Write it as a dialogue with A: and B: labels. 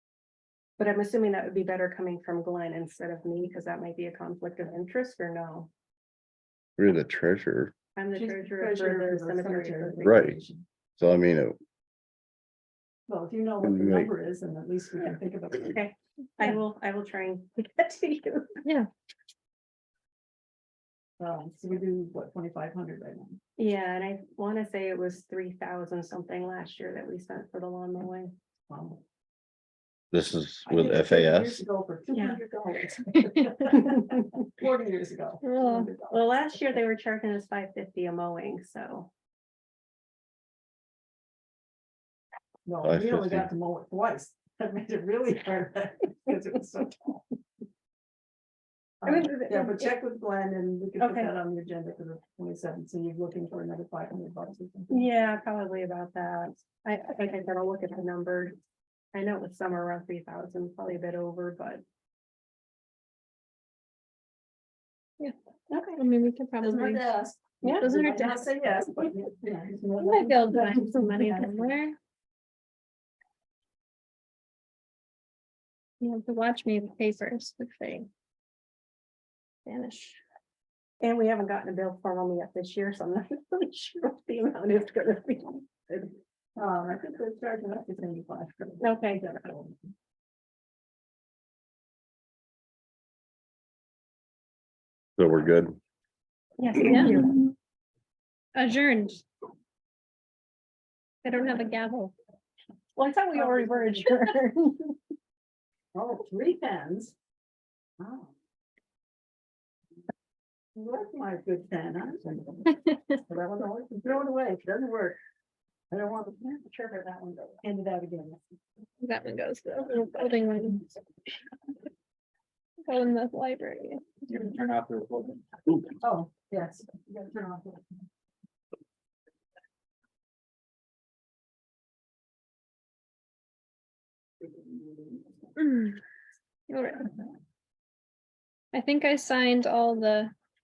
A: But I'm assuming that would be better coming from Glenn instead of me, because that might be a conflict of interest or no?
B: You're the treasurer,
A: I'm the
C: She's
A: treasurer for the cemetery.
B: Right. so I mean, it-
C: Well, if you know what the
B: Right.
C: number is, and at least we can think about it.
A: Okay, I
C: Yeah.
A: will, I will try and get to you.
C: Um, so we do what, twenty-five hundred right now?
A: Yeah, and I want to say it was three thousand something last year that we spent for the lawn mowing.
C: Wow.
B: this is
C: Um, I
B: with
C: did it 50 years
B: FAS.
C: Ago for two
A: Yeah.
C: hundred dollars. Forty years ago.
A: Well,
C: $200.
A: Well, last year they were charging us five fifty a mowing, so.
C: No, we only
B: 550.
C: got to mow it twice. That made it really hard. Because it was so tall.
A: I mean,
C: Um, Yeah, but
A: it- it-
C: check with Glenn and we can put
A: Okay.
C: that on the agenda for the twenty-seventh. So you're looking for another five hundred bucks or something.
A: Yeah, probably about that. I, I think I gotta look at the number. I know it was somewhere around three thousand, probably a bit over, but.
D: Yeah.
A: Okay,
D: I mean, we could
C: Doesn't
D: probably,
C: hurt to ask.
A: yeah,
D: Doesn't hurt
C: Might
D: to
C: not Say yes, but. you know, it's more
D: we might be able to
C: than-
D: find some money
C: Yeah.
D: somewhere. You have to watch me in the papers, which they vanish.
A: and we haven't gotten a bill formally yet this year, so I'm not really sure what the amount is gonna be.
C: Um, I think they're charging up to seventy-five. for the-
A: Okay, good.
B: So we're good.
A: Yes,
D: Yeah.
A: thank you.
D: Adjourned. I don't have a gavel.
A: Well, I thought we already were adjourned.
C: Oh, three pens. Wow. Where's my good pen? I'm sending it. But I don't know, it's thrown away, it doesn't work. I don't want to, I'm sure where that one goes, hand it out again.
D: That one goes. to the little building one. Go in the library.
E: You can turn off the recording.
C: Oh, yes, you gotta turn off. the-
D: Mm. All right. I think I signed all the